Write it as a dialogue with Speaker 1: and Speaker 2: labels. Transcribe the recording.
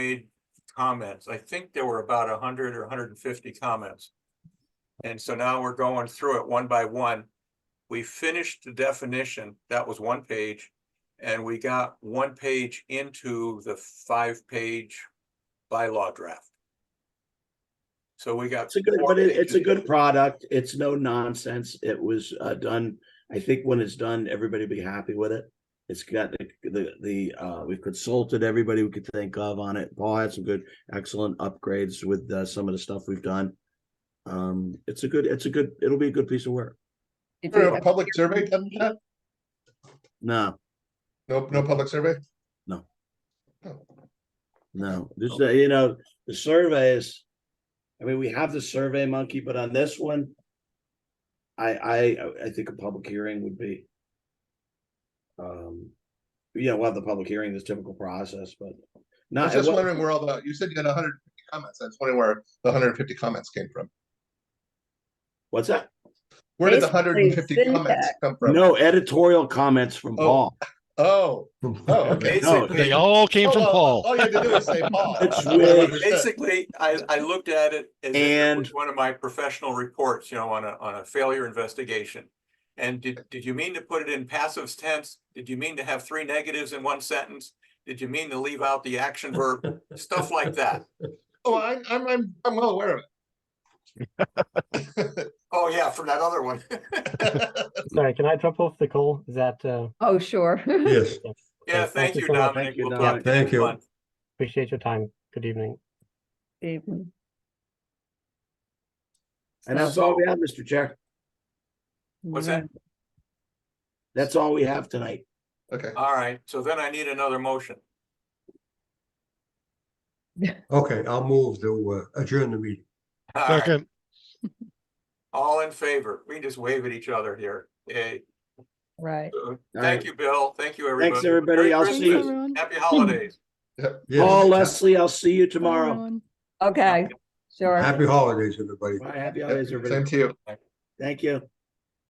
Speaker 1: made comments. I think there were about hundred or hundred and fifty comments. And so now we're going through it one by one. We finished the definition. That was one page. And we got one page into the five-page bylaw draft. So we got.
Speaker 2: It's a good,
Speaker 1: four
Speaker 2: but it, it's a
Speaker 1: pages.
Speaker 2: good product. It's no nonsense. It was uh, done. I think when it's done, everybody will be happy with it. It's got the, the, the, uh, we've consulted everybody we could think of on it. Paul had some good, excellent upgrades with, uh, some of the stuff we've done. Um, it's a good, it's a good, it'll be a good piece of work.
Speaker 3: Did
Speaker 4: For
Speaker 3: we-
Speaker 4: a public survey, done that?
Speaker 2: No,
Speaker 4: No, no public survey?
Speaker 2: No.
Speaker 4: Oh.
Speaker 2: no, this, uh, you know, the surveys. I mean, we have the survey monkey, but on this one. I, I, I think a public hearing would be. Um, yeah, we'll have the public hearing, this typical process, but
Speaker 4: I
Speaker 2: not,
Speaker 4: was
Speaker 2: it
Speaker 4: just
Speaker 2: wa-
Speaker 4: wondering where all the, you said you had hundred and fifty comments. I was wondering where the hundred and fifty comments came from.
Speaker 2: what's that?
Speaker 4: Where did the hundred and fifty
Speaker 3: Basically,
Speaker 4: comments
Speaker 3: feedback.
Speaker 4: come from?
Speaker 2: No editorial comments from
Speaker 4: Oh,
Speaker 2: Paul.
Speaker 4: Oh, oh, okay.
Speaker 1: Basically,
Speaker 5: They all came from
Speaker 4: Oh, well,
Speaker 5: Paul.
Speaker 4: All you had to do was say Paul.
Speaker 2: It's
Speaker 4: I
Speaker 2: really-
Speaker 4: understood.
Speaker 1: Basically, I, I looked at it as if it was
Speaker 2: And-
Speaker 1: one of my professional reports, you know, on a, on a failure investigation. And did, did you mean to put it in passive tense? Did you mean to have three negatives in one sentence? Did you mean to leave out the action verb? Stuff like that.
Speaker 4: Oh, I'm, I'm, I'm, I'm well aware of it.
Speaker 1: Oh, yeah, from that other one.
Speaker 6: Sorry, can I drop off the call? Is that, uh,
Speaker 3: Oh, sure.
Speaker 7: Yes,
Speaker 1: Yeah,
Speaker 6: Okay,
Speaker 1: thank you,
Speaker 6: so much.
Speaker 1: Dominic.
Speaker 2: Thank you,
Speaker 1: We'll
Speaker 2: Dominic.
Speaker 1: talk to
Speaker 7: Thank you.
Speaker 1: next month.
Speaker 6: appreciate your time. Good evening.
Speaker 3: Evening.
Speaker 2: And that's all we have, Mr. Chair.
Speaker 1: What's that?
Speaker 2: That's all we have tonight.
Speaker 4: Okay,
Speaker 1: All right, so then I need another motion.
Speaker 7: okay, I'll move to uh, adjourn the meeting.
Speaker 1: All right,
Speaker 5: Second,
Speaker 1: All in favor? We can just wave at each other here. Eh, Yay.
Speaker 3: Right.
Speaker 1: Uh,
Speaker 2: All
Speaker 1: Thank
Speaker 2: right.
Speaker 1: you, Bill. Thank you, everybody.
Speaker 2: Thanks,
Speaker 1: Merry
Speaker 2: everybody. I'll see
Speaker 1: Christmas.
Speaker 2: you.
Speaker 8: everyone.
Speaker 1: Happy holidays.
Speaker 7: Yes.
Speaker 2: Paul, Leslie, I'll see you
Speaker 8: Bye,
Speaker 2: tomorrow.
Speaker 8: everyone.
Speaker 3: Okay, sure.
Speaker 7: Happy holidays, everybody.
Speaker 2: Bye, happy
Speaker 4: Yep,
Speaker 2: holidays,
Speaker 4: same
Speaker 2: everybody.
Speaker 4: to you.
Speaker 2: Thank you.